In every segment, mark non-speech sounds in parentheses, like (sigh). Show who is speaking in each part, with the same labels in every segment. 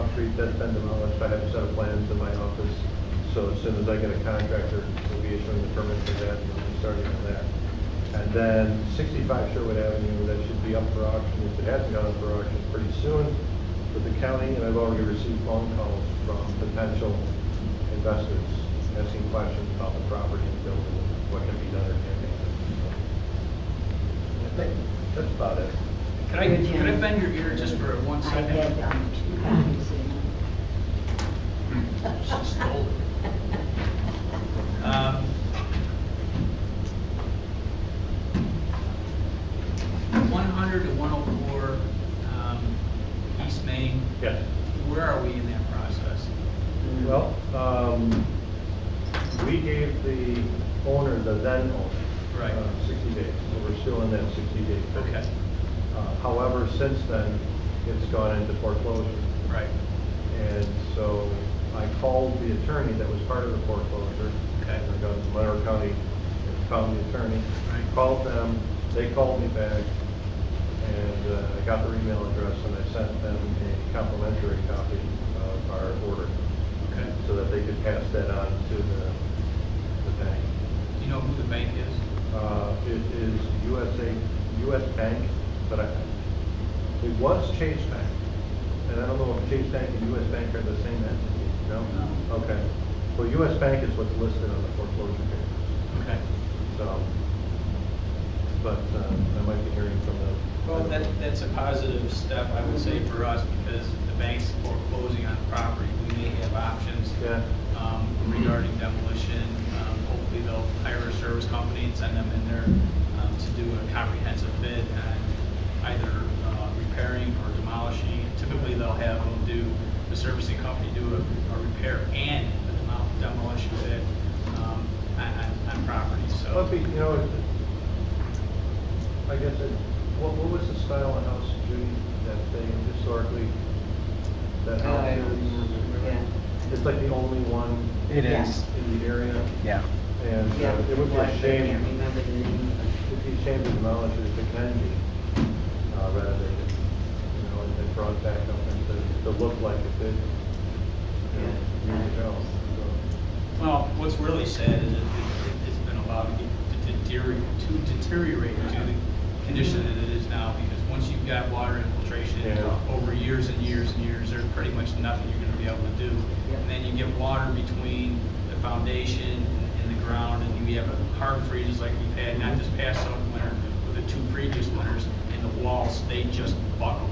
Speaker 1: that's been demolished, I have a set of plans in my office, so as soon as I get a contractor, we'll be issuing the permit for that, and we'll be starting on that. And then sixty-five Sherwood Avenue, that should be up for auction, if it hasn't gone up for auction, pretty soon with the county, and I've already received phone calls from potential investors asking questions about the property and building, what can be done or can't be done. So, I think that's about it.
Speaker 2: Could I, could I bend your ear just for one
Speaker 3: I
Speaker 2: second?
Speaker 3: had,
Speaker 2: Hmm.
Speaker 3: um, two copies in.
Speaker 2: She stole it. Um, One hundred to one oh four, um, East Main,
Speaker 1: Yes.
Speaker 2: where are we in that process?
Speaker 1: Well, um, we gave the owner, the then owner.
Speaker 2: Right.
Speaker 1: uh, Sixty days, so we're still in that sixty day. period.
Speaker 2: Okay,
Speaker 1: Uh, However, since then, it's gone into foreclosure.
Speaker 2: right,
Speaker 1: And so I called the attorney that was part of the foreclosure.
Speaker 2: Okay.
Speaker 1: I got the Monroe County, County Attorney.
Speaker 2: Right.
Speaker 1: Called them, they called me back, and uh, I got their email address, and I sent them a complimentary copy of our order,
Speaker 2: okay.
Speaker 1: so that they could pass that on to the, the bank.
Speaker 2: Do you know who the bank is?
Speaker 1: Uh, It is USA, US Bank, but I, it was Chase Bank. And I don't know if Chase Bank and US Bank are the same entity, no?
Speaker 2: No.
Speaker 1: Okay. Well, US Bank is what's listed on the foreclosure papers,
Speaker 2: Okay.
Speaker 1: so. But uh, I might be hearing from them.
Speaker 2: Well, that, that's a positive step, I would say, for us, because if the banks foreclosing on property, we may have options
Speaker 1: Yeah,
Speaker 2: um, regarding demolition. Um, Hopefully, they'll hire a service company and send them in there um, to do a comprehensive bid on either uh, repairing or demolishing. Typically, they'll have them do, the servicing company do a a repair and a demo- demolition bid um, on- on on property,
Speaker 1: Well, it'd
Speaker 2: so.
Speaker 1: be, you know, it- I guess, it- what, what was the style of house, Judy, that they historically? that house
Speaker 4: I don't
Speaker 1: is?
Speaker 4: remember.
Speaker 3: Yeah.
Speaker 1: It's like the only one
Speaker 5: It
Speaker 3: Yeah.
Speaker 5: is,
Speaker 1: in the area,
Speaker 5: yeah.
Speaker 1: and
Speaker 3: Yeah,
Speaker 1: uh, it would be
Speaker 3: well,
Speaker 1: a
Speaker 3: I can't
Speaker 1: shame,
Speaker 3: remember the name.
Speaker 1: it'd be a shame to demolish it if it can be, uh, rather than, you know, and then brought back up and to, to look like it did, you know,
Speaker 3: Yeah.
Speaker 1: years ago, so.
Speaker 2: Well, what's really sad is it, it- it's been allowed to get- to deteriorate, to deteriorate to the condition that it is now, because once you've got water infiltration
Speaker 1: Yeah.
Speaker 2: over years and years and years, there's pretty much nothing you're gonna be able to do. And then you get water between the foundation and the ground, and you have a hard freezes like we've had, not this past summer winter, but the two previous winters, and the walls, they just buckle.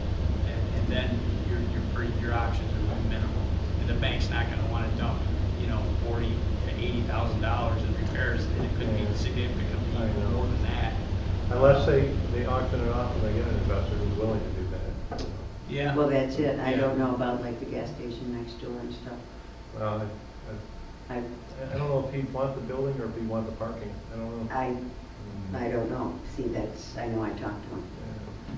Speaker 2: And- And then your, your, pre- your options are minimal. And the bank's not gonna wanna dump, you know, forty to eighty thousand dollars in repairs, and it could be
Speaker 1: I
Speaker 2: significantly
Speaker 1: know.
Speaker 2: more than that.
Speaker 1: Unless they, they auction it off and they get an investor who's willing to do that.
Speaker 2: Yeah.
Speaker 3: Well, that's it. I
Speaker 2: Yeah.
Speaker 3: don't know about like the gas station next door and stuff.
Speaker 1: Well, I,
Speaker 3: I,
Speaker 1: I- I don't know if he'd want the building or if he'd want the parking, I don't know. Mm.
Speaker 3: I, Uh, I don't know. See, that's, I know I talked to him.
Speaker 1: Yeah.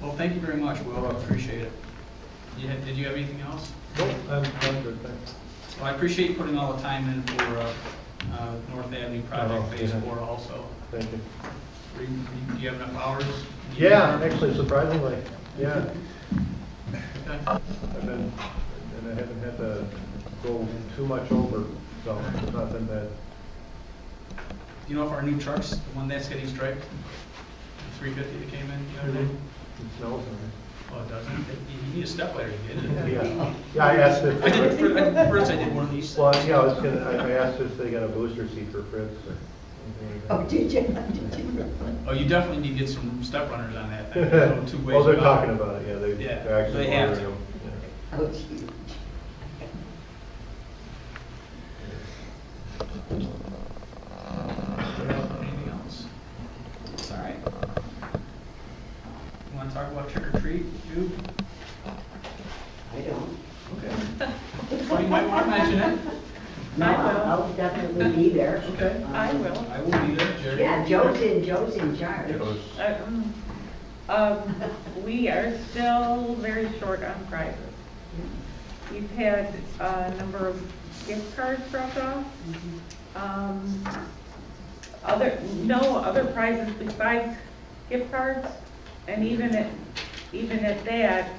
Speaker 2: Well, thank you very much, Will, I appreciate it. You had, did you have anything else?
Speaker 1: Nope, I'm, I'm good, thanks.
Speaker 2: Well, I appreciate you putting all the time in for, uh, uh, North Avenue
Speaker 1: Oh,
Speaker 2: Project Phase
Speaker 1: yeah.
Speaker 2: Four also.
Speaker 1: Thank you.
Speaker 2: Are you- Do you have enough hours?
Speaker 1: Yeah, actually surprisingly, yeah.
Speaker 2: Okay.
Speaker 1: (laughs) I've been, and I haven't had to go too much over, so it's not been bad.
Speaker 2: Do you know if our new truck's, the one that's getting striped? The three fifty that came in the other day?
Speaker 1: It smells nice.
Speaker 2: Oh, it doesn't? You- You need a step ladder to get it.
Speaker 1: Yeah, yeah, I asked if,
Speaker 2: I did, (laughs) fir- I- first I did one of these.
Speaker 1: well, yeah, I was gonna, I I asked if they got a booster seat for Fritz or anything like that.
Speaker 3: Oh, did you? (laughs) Did you?
Speaker 2: Oh, you definitely need to get some step runners on (laughs)
Speaker 1: (laughs)
Speaker 2: that thing. There's no Oh, two ways
Speaker 1: Well, Oh, they're
Speaker 2: about it.
Speaker 1: talking about it, yeah, they,
Speaker 2: Yeah,
Speaker 1: they're actually
Speaker 2: they have
Speaker 1: ordering
Speaker 2: to.
Speaker 1: them. yeah.
Speaker 3: Oh, gee.
Speaker 2: Anything else? All right. You wanna talk about trick or treat, Jude?
Speaker 3: I don't.
Speaker 2: Okay. (laughs) Well, you might wanna mention it.
Speaker 3: No, I'll I'll definitely be there. Um,
Speaker 2: Okay.
Speaker 6: I will.
Speaker 2: I will be there, Jerry.
Speaker 3: Yeah, Joe's in, Joe's in charge.
Speaker 1: Those-
Speaker 6: I- mm. Um, We are still very short on prizes. We've had a number of gift cards dropped off. Um, Other, no other prizes besides gift cards. And even at, even at that,